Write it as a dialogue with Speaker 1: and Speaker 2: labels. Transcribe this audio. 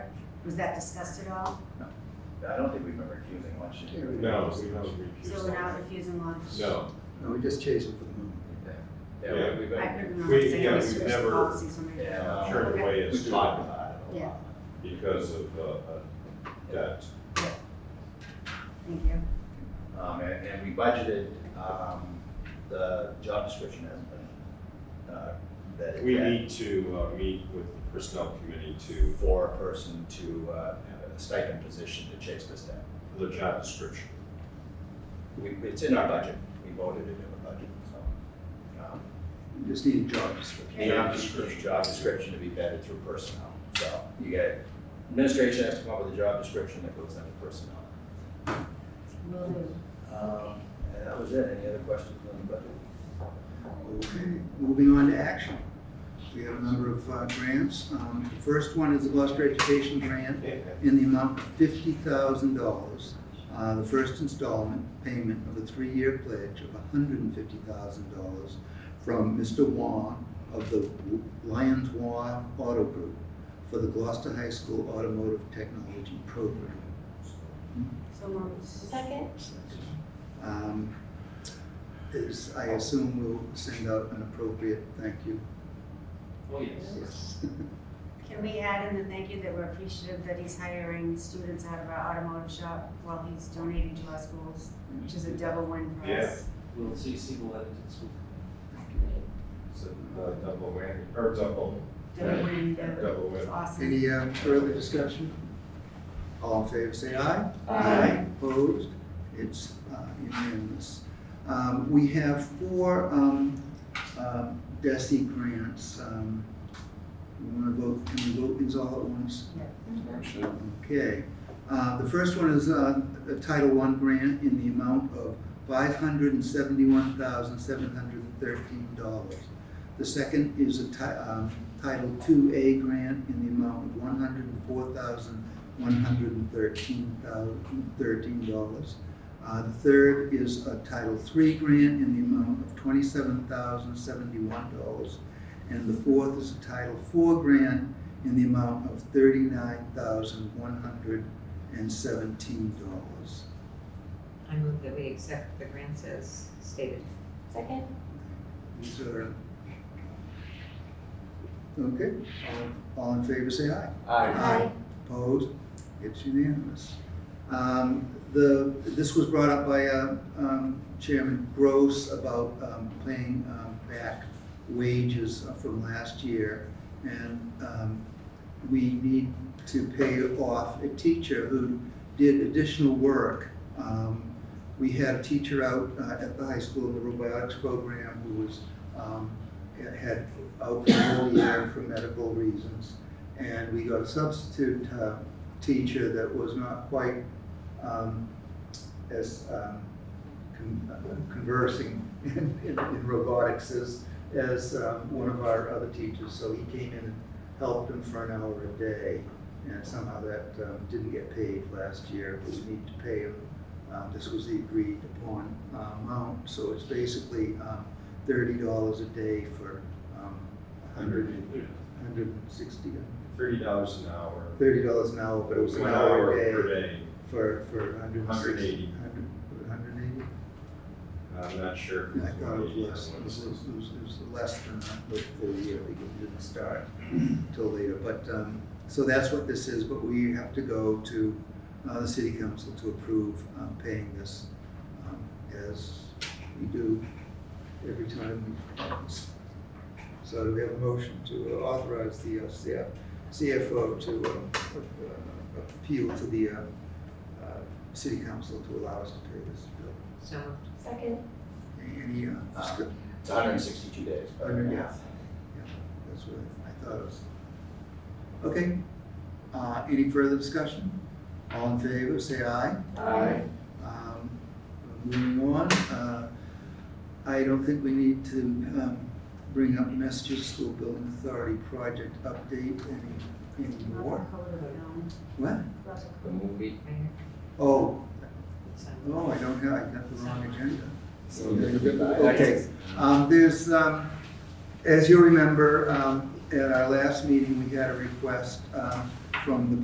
Speaker 1: Was that discussed at all?
Speaker 2: I don't think we've been refusing lunch.
Speaker 3: Yeah, we-
Speaker 4: No, we haven't
Speaker 1: So
Speaker 4: refused.
Speaker 1: we're not refusing lunch?
Speaker 4: No,
Speaker 3: No, we just chase them for the moment.
Speaker 2: Yeah, we- we've
Speaker 1: I
Speaker 2: been,
Speaker 1: couldn't remember
Speaker 4: We-
Speaker 1: saying
Speaker 4: yeah,
Speaker 1: we
Speaker 4: we've
Speaker 1: switched the
Speaker 4: never-
Speaker 1: policies when we.
Speaker 2: yeah.
Speaker 4: uh,
Speaker 2: um,
Speaker 4: turned away a
Speaker 2: We've talked
Speaker 4: student
Speaker 2: about it a
Speaker 1: Yeah.
Speaker 2: lot.
Speaker 4: because of, uh, uh, debt.
Speaker 1: Thank you.
Speaker 2: Um, and, and we budgeted, um, the job description hasn't been, uh, that it
Speaker 4: We
Speaker 2: had
Speaker 4: need to, uh, meet with the personnel committee to,
Speaker 2: for a person to, uh, have a stipend position to chase this down.
Speaker 4: for the job description.
Speaker 2: We, it's in our budget, we voted it in the budget, so. um,
Speaker 3: We Just need a job description.
Speaker 4: Yeah.
Speaker 2: Job description, job description to be vetted through personnel, so you get, administration has to come up with a job description that goes under personnel.
Speaker 1: Will do.
Speaker 2: Um, and that was it, any other questions on the budget?
Speaker 3: Okay, moving on to action. We have a number of uh, grants. Um, The first one is the Gloucester Education Grant in the amount of fifty thousand dollars. uh, The first installment payment of a three-year pledge of hundred and fifty thousand dollars from Mr. Wong of the Lions Wong Auto Group for the Gloucester High School Automotive Technology Program.
Speaker 1: So moved.
Speaker 5: Second?
Speaker 3: Um, Is, I assume we'll send out an appropriate thank you.
Speaker 6: Oh, yes.
Speaker 1: Can we add in the thank you that we're appreciative that he's hiring students out of our automotive shop while he's donating to our schools, which is a double win for us?
Speaker 6: We'll see, see the letters at school.
Speaker 4: So, uh, double whammy, or double,
Speaker 1: Double win, yeah.
Speaker 4: double
Speaker 1: it's
Speaker 4: whammy.
Speaker 1: awesome.
Speaker 3: Any uh, further discussion? All in favor, say aye.
Speaker 5: Aye.
Speaker 3: Opposed? It's uh, unanimous. Um, We have four um, um, DESI grants. Um, We want to vote, can we vote these all at once? Okay. Uh, The first one is uh, a Title I grant in the amount of $571,713. The second is a Ti- um, Title II-A grant in the amount of one hundred and four thousand, one hundred and thirteen thousand, thirteen dollars. Uh, the third is a Title III grant in the amount of twenty-seven thousand, seventy-one dollars. And the fourth is a Title IV grant in the amount of thirty-nine thousand, one hundred and seventeen dollars.
Speaker 7: I move that we accept the grants as stated.
Speaker 5: Second?
Speaker 3: These are. Okay, all, all in favor, say aye.
Speaker 5: Aye.
Speaker 3: Opposed? It's unanimous. Um, The, this was brought up by uh, um, Chairman Gross about um, paying um, back wages from last year. And um, we need to pay off a teacher who did additional work. Um, We had a teacher out uh, at the high school in the robotics program who was, um, had out for a whole year for medical reasons and we got a substitute uh, teacher that was not quite um, as um, con- uh, conversing in, in, in robotics as, as um, one of our other teachers. So he came in and helped him for an hour a day, and somehow that um, didn't get paid last year. But we need to pay him. Um, this was the agreed upon uh, amount, so it's basically um, thirty dollars a day for um, a hundred and hundred and sixty,
Speaker 4: Thirty dollars an hour.
Speaker 3: thirty dollars an hour, but it was an
Speaker 4: One
Speaker 3: hour
Speaker 4: per
Speaker 3: a day
Speaker 4: day.
Speaker 3: for, for a hundred and sixty.
Speaker 4: 180.
Speaker 3: Hundred and eighty?
Speaker 4: I'm not sure. if
Speaker 3: I
Speaker 4: it's
Speaker 3: thought it was
Speaker 4: 180 or
Speaker 3: less, it was, it
Speaker 4: 160.
Speaker 3: was, it was- it was less than that, the full year, because it didn't start till later, but, um, so that's what this is, but we have to go to, uh, the city council to approve, um, paying this, um, as we do every time we. So do we have a motion to authorize the uh, CF, CFO to, um, uh, appeal to the, uh, uh, city council to allow us to pay this bill?
Speaker 7: So moved.
Speaker 5: Second?
Speaker 3: Any, uh, discuss-
Speaker 2: It's hundred and sixty-two days. but-
Speaker 3: Hundred, yeah. That's what I thought it was. Okay, uh, any further discussion? All in favor, say aye.
Speaker 5: Aye.
Speaker 3: Um, moving on, uh, I don't think we need to, um, bring up Massachusetts School Building Authority project update any, anymore.
Speaker 1: Love the color of the film.
Speaker 3: What?
Speaker 1: Love the
Speaker 6: The
Speaker 1: color.
Speaker 6: movie.
Speaker 7: Right here. um,
Speaker 3: Oh,
Speaker 7: So
Speaker 3: oh, I don't have, I got the wrong agenda. Okay,
Speaker 2: Okay.
Speaker 3: um, there's, um, as you remember, um, at our last meeting, we had a request, um, from the